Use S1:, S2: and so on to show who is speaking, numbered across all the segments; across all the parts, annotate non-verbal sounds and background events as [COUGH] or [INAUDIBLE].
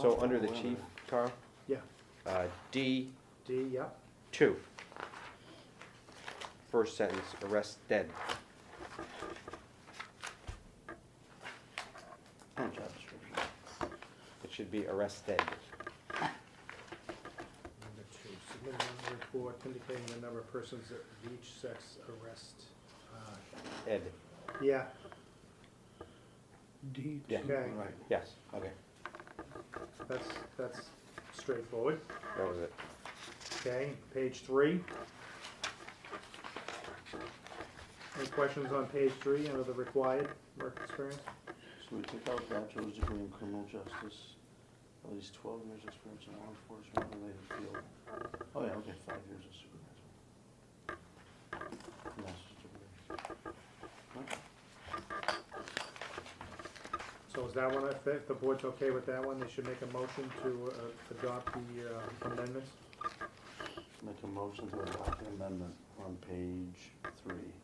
S1: So under the chief, Carl,
S2: Yeah,
S1: uh, D
S2: D, yeah,
S1: two. First sentence, arrested.
S3: And job description.
S1: It should be arrested.
S2: number two, submit a report indicating the number of persons that of each sex arrest. Uh,
S1: Ed,
S2: Yeah,
S3: D.
S1: Yeah.
S2: Okay.
S3: Right,
S1: yes,
S3: okay.
S2: that's, that's straightforward.
S1: that was it.
S2: Okay, page three. Any questions on page three under the required work experience?
S3: So we take out bachelor's degree in criminal justice, at least twelve years experience in law enforcement related field. Oh, yeah, okay, five years of supervisor. Master's degree. Right.
S2: So is that one, if if the board's okay with that one, they should make a motion to uh, adopt the uh, amendments?
S3: Make a motion to adopt the amendment on page three,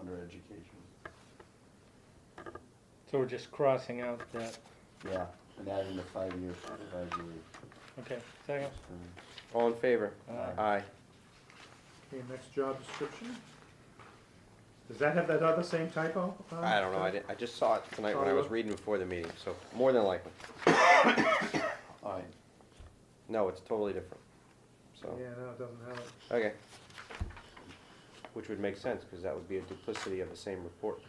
S3: under education.
S4: So we're just crossing out that,
S3: Yeah, and adding the five year supervisory.
S4: okay, second?
S3: experience.
S1: All in favor?
S3: Aye.
S1: Aye.
S2: Okay, next job description. Does that have that other same typo? uh,
S1: I don't know, I didn't, I just saw it tonight when I was
S2: Follow-up?
S1: reading before the meeting, so more than likely.
S3: All right,
S1: No, it's totally different. So,
S2: Yeah, no, it doesn't have it.
S1: okay. Which would make sense, because that would be a duplicity of the same report.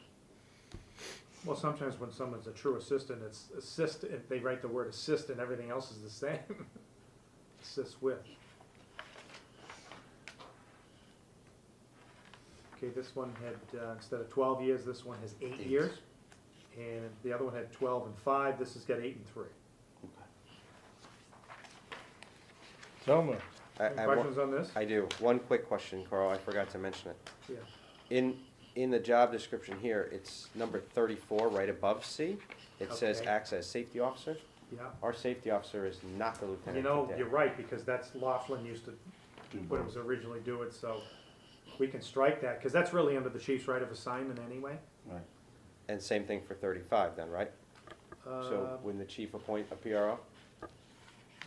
S2: Well, sometimes when someone's a true assistant, it's assist, if they write the word assist and everything else is the same. [LAUGHS] Assist with. Okay, this one had, uh, instead of twelve years, this one has eight
S3: Eight.
S2: years. And the other one had twelve and five, this has got eight and three.
S3: okay.
S4: So moved.
S1: I, I
S2: Any
S1: have one-
S2: questions on this?
S1: I do. One quick question, Carl, I forgot to mention it.
S2: Yeah.
S1: In, in the job description here, it's number thirty-four, right above C. It says
S2: Okay.
S1: acts as safety officer.
S2: Yeah.
S1: Our safety officer is not the lieutenant
S2: You know,
S1: today.
S2: you're right, because that's Laughlin used to,
S3: Do
S2: when it
S3: both.
S2: was originally do it, so we can strike that, because that's really under the chief's right of assignment anyway.
S3: Right,
S1: And same thing for thirty-five then, right?
S2: Uh,
S1: So when the chief appoint a PRO,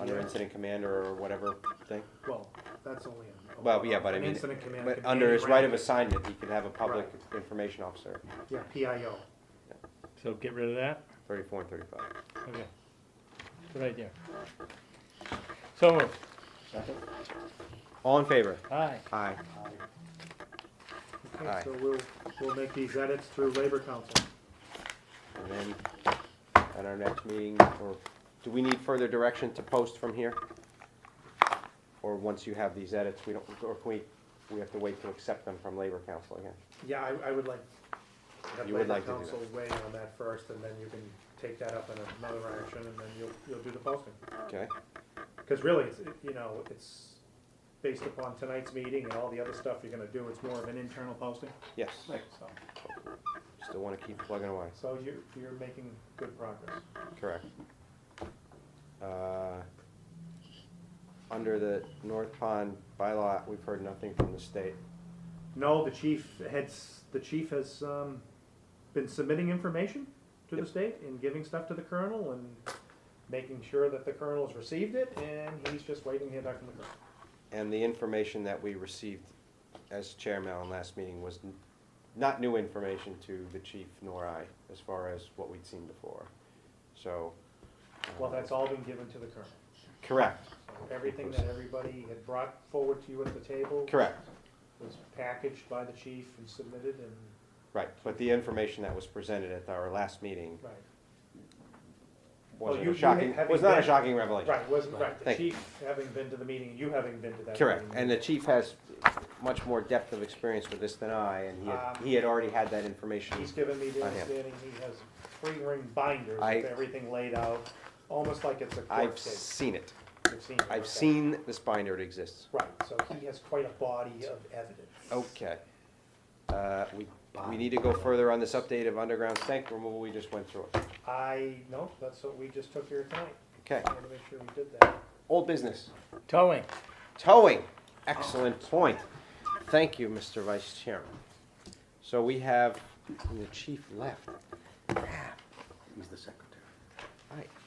S1: under
S2: Yeah.
S1: incident commander or whatever thing?
S2: Well, that's only a.
S1: Well, yeah, but I
S2: an
S1: mean,
S2: Incident command.
S1: but
S2: could be
S1: under
S2: any
S1: his right of
S2: rank.
S1: assignment, he can have a public information officer,
S2: Yeah, PIO.
S4: So get rid of that?
S1: thirty-four and thirty-five.
S4: Okay. Good idea. So moved.
S3: second?
S1: All in favor?
S4: Aye.
S1: Aye.
S3: Aye.
S2: Okay,
S1: Aye.
S2: so we'll, we'll make these edits through Labor Council.
S1: And then at our next meeting, or do we need further direction to post from here? Or once you have these edits, we don't, or can we, we have to wait to accept them from Labor Council again?
S2: Yeah, I, I would like. have
S1: You would
S2: Labor
S1: like to do
S2: Council weigh in on that first, and then you can take that up in another action, and then you'll, you'll do the posting.
S1: Okay,
S2: Because really, it's, it- you know, it's based upon tonight's meeting and all the other stuff you're gonna do, it's more of an internal posting,
S1: yes,
S2: so.
S1: still wanna keep plugging away,
S2: So you're, you're making good progress.
S1: correct. Uh, Under the North Pond bylaw, we've heard nothing from the state.
S2: No, the chief heads, the chief has, um, been submitting information to the
S1: Yep.
S2: state and giving stuff to the colonel and making sure that the colonel's received it, and he's just waiting to hear back from the colonel.
S1: And the information that we received as chairman on last meeting was n- not new information to the chief nor I, as far as what we'd seen before. So. uh,
S2: Well, that's all been given to the colonel.
S1: Correct,
S2: So Everything that everybody had brought forward to you at the table.
S1: correct,
S2: Was packaged by the chief and submitted and,
S1: right. But the information that was presented at our last meeting
S2: right. you-
S1: wasn't
S2: you
S1: a
S2: had-
S1: shocking,
S2: having
S1: was not a
S2: been-
S1: shocking revelation.
S2: Right, wasn't, right, the
S1: Thank you.
S2: chief having been to the meeting, and you having been to that.
S1: Correct,
S2: meeting.
S1: and the chief has much more depth of experience with this than I, and he had,
S2: Um,
S1: he had already had that information.
S2: He's given me the
S1: I have.
S2: understanding he has three ring binders
S1: I-
S2: with everything laid out, almost like it's a court
S1: I've
S2: case.
S1: seen it.
S2: You've seen it, okay.
S1: I've seen this binder, it exists.
S2: Right, so he has quite a body of evidence.
S1: Okay. Uh, We, we need to go further on this update of underground stank removal, we just went through it.
S2: I, no, that's what we just took here tonight.
S1: Okay,
S2: I wanted to make sure we did that.
S1: old business,
S4: Towing.
S1: towing, excellent point. Thank you, Mr. Vice Chairman. So we have, the chief left,
S3: He's the secretary.
S1: I